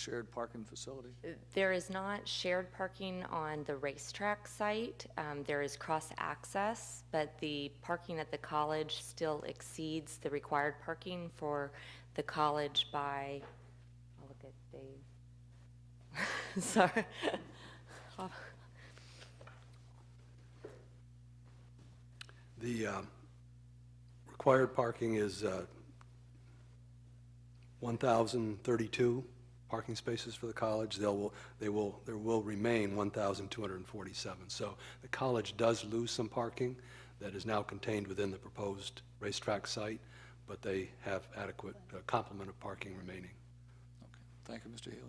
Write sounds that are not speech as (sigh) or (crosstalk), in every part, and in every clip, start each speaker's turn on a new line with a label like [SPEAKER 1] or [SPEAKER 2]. [SPEAKER 1] shared parking facility?
[SPEAKER 2] There is not shared parking on the racetrack site. Um, There is cross-access, but the parking at the college still exceeds the required parking for the college by, I'll look at Dave. (laughs) Sorry.
[SPEAKER 3] The um, required parking is uh, 1,032 parking spaces for the college. They'll, will- they will, there will remain 1,247. So the college does lose some parking that is now contained within the proposed racetrack site, but they have adequate uh, complement of parking remaining.
[SPEAKER 1] Okay, thank you, Mr. Healy.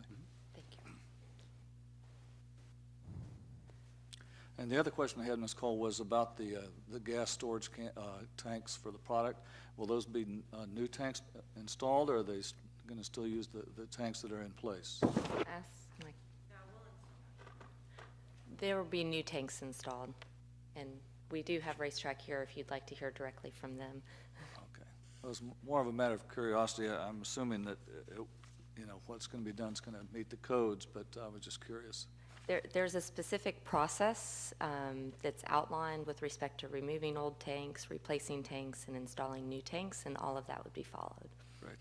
[SPEAKER 2] Thank you.
[SPEAKER 1] And the other question I had, Ms. Cole, was about the, uh, the gas storage can, uh, tanks for the product. Will those be, uh, new tanks installed, or are they s- gonna still use the, the tanks that are in place?
[SPEAKER 2] Ask Mike. There will be new tanks installed, and we do have racetrack here if you'd like to hear directly from them.
[SPEAKER 1] Okay. It was m- more of a matter of curiosity. I- I'm assuming that, uh, it- you know, what's gonna be done is gonna meet the codes, but I was just curious.
[SPEAKER 2] There, there's a specific process um, that's outlined with respect to removing old tanks, replacing tanks, and installing new tanks, and all of that would be followed.
[SPEAKER 1] Right.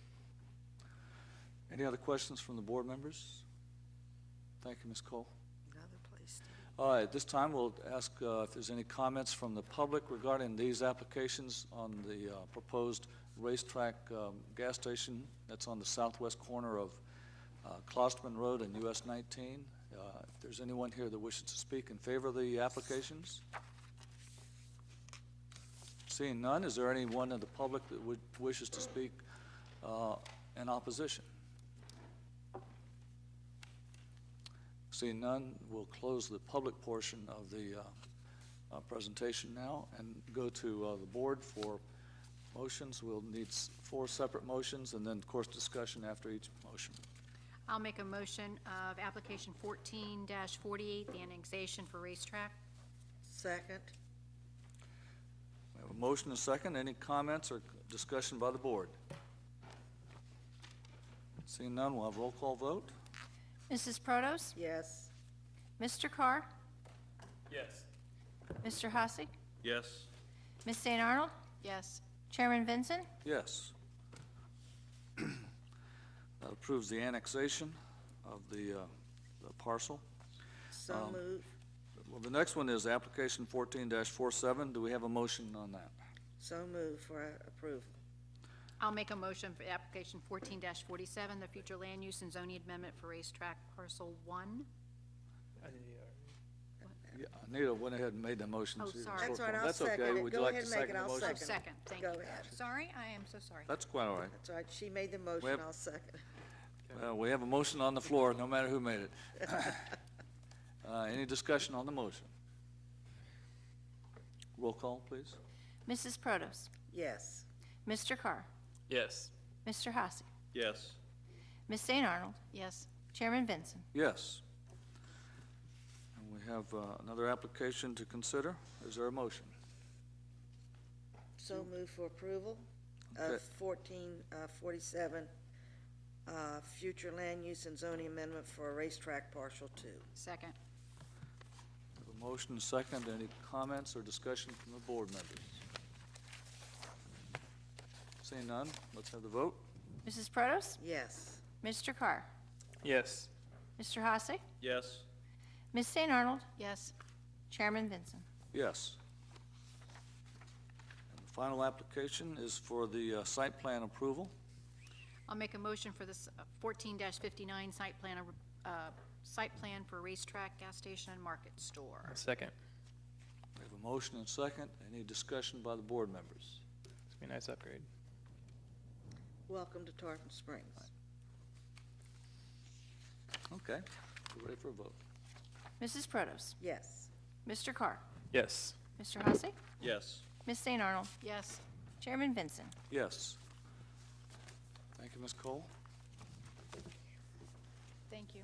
[SPEAKER 1] Any other questions from the board members? Thank you, Ms. Cole.
[SPEAKER 4] Another place.
[SPEAKER 1] All right, this time we'll ask uh, if there's any comments from the public regarding these applications on the uh, proposed racetrack um, gas station that's on the southwest corner of uh, Klosterman Road and US 19. Uh, If there's anyone here that wishes to speak in favor of the applications? Seeing none, is there anyone in the public that would, wishes to speak uh, in opposition? Seeing none, we'll close the public portion of the uh, uh, presentation now and go to uh, the board for motions. We'll need s- four separate motions and then, of course, discussion after each motion.
[SPEAKER 5] I'll make a motion of application fourteen forty-eight, the annexation for racetrack.
[SPEAKER 4] Second,
[SPEAKER 1] We have a motion and a second. Any comments or discussion by the board? Seeing none, we'll have roll call vote.
[SPEAKER 6] Mrs. Protos?
[SPEAKER 4] yes.
[SPEAKER 6] Mr. Carr?
[SPEAKER 7] Yes.
[SPEAKER 6] Mr. Hasek?
[SPEAKER 7] Yes.
[SPEAKER 6] Miss St. Arnold?
[SPEAKER 5] Yes.
[SPEAKER 6] Chairman Vincent?
[SPEAKER 1] Yes. (clears throat) That approves the annexation of the uh, the parcel.
[SPEAKER 4] So
[SPEAKER 1] Um,
[SPEAKER 4] move,
[SPEAKER 1] Well, the next one is application fourteen 47 Do we have a motion on that?
[SPEAKER 4] so move for approval.
[SPEAKER 5] I'll make a motion for application fourteen forty-seven, the future land use and zoning amendment for racetrack parcel one.
[SPEAKER 1] Yeah, Anita went ahead and made the motion.
[SPEAKER 5] Oh,
[SPEAKER 1] She was
[SPEAKER 5] sorry.
[SPEAKER 1] short
[SPEAKER 4] That's all right,
[SPEAKER 1] form.
[SPEAKER 4] I'll
[SPEAKER 1] That's okay.
[SPEAKER 4] second it.
[SPEAKER 1] Would you
[SPEAKER 4] Go
[SPEAKER 1] like
[SPEAKER 4] ahead
[SPEAKER 1] to
[SPEAKER 4] and make it.
[SPEAKER 1] the
[SPEAKER 4] I'll
[SPEAKER 1] motion?
[SPEAKER 4] second it.
[SPEAKER 5] Oh, Second, thank you.
[SPEAKER 4] Go ahead.
[SPEAKER 5] Sorry, I am so sorry.
[SPEAKER 1] That's quite all right.
[SPEAKER 4] That's all right, she made the motion, I'll second.
[SPEAKER 1] Uh, We have a motion on the floor, no matter who
[SPEAKER 4] (laughs)
[SPEAKER 1] made it. Uh, Any discussion on the motion? Roll call, please.
[SPEAKER 6] Mrs. Protos?
[SPEAKER 4] Yes,
[SPEAKER 6] Mr. Carr?
[SPEAKER 7] Yes.
[SPEAKER 6] Mr. Hasek?
[SPEAKER 7] Yes.
[SPEAKER 6] Miss St. Arnold?
[SPEAKER 5] Yes.
[SPEAKER 6] Chairman Vincent?
[SPEAKER 1] Yes. And we have uh, another application to consider. Is there a motion?
[SPEAKER 4] so move for approval of
[SPEAKER 1] Mm. Okay.
[SPEAKER 4] fourteen uh, forty-seven, uh, future land use and zoning amendment for a racetrack partial two.
[SPEAKER 5] Second.
[SPEAKER 1] We have A motion, and a second. Any comments or discussion from the board members? Seeing none, let's have the vote.
[SPEAKER 6] Mrs. Protos?
[SPEAKER 4] Yes,
[SPEAKER 6] Mr. Carr?
[SPEAKER 7] Yes.
[SPEAKER 6] Mr. Hasek?
[SPEAKER 7] Yes.
[SPEAKER 6] Miss St. Arnold?
[SPEAKER 5] Yes.
[SPEAKER 6] Chairman Vincent?
[SPEAKER 1] Yes. And the final application is for the uh, site plan approval.
[SPEAKER 5] I'll make a motion for this uh, fourteen fifty-nine site plan, uh, site plan for racetrack, gas station, and market store.
[SPEAKER 7] Second.
[SPEAKER 1] We have a motion and a second. Any discussion by the board members?
[SPEAKER 7] It's be a nice upgrade.
[SPEAKER 4] welcome to Tarpon Springs.
[SPEAKER 1] Okay, we're ready for a vote.
[SPEAKER 6] Mrs. Protos?
[SPEAKER 4] Yes,
[SPEAKER 6] Mr. Carr?
[SPEAKER 7] Yes.
[SPEAKER 6] Mr. Hasek?
[SPEAKER 7] Yes.
[SPEAKER 6] Miss St. Arnold?
[SPEAKER 5] Yes.
[SPEAKER 6] Chairman Vincent?
[SPEAKER 1] Yes. Thank you, Ms. Cole.
[SPEAKER 5] Thank you.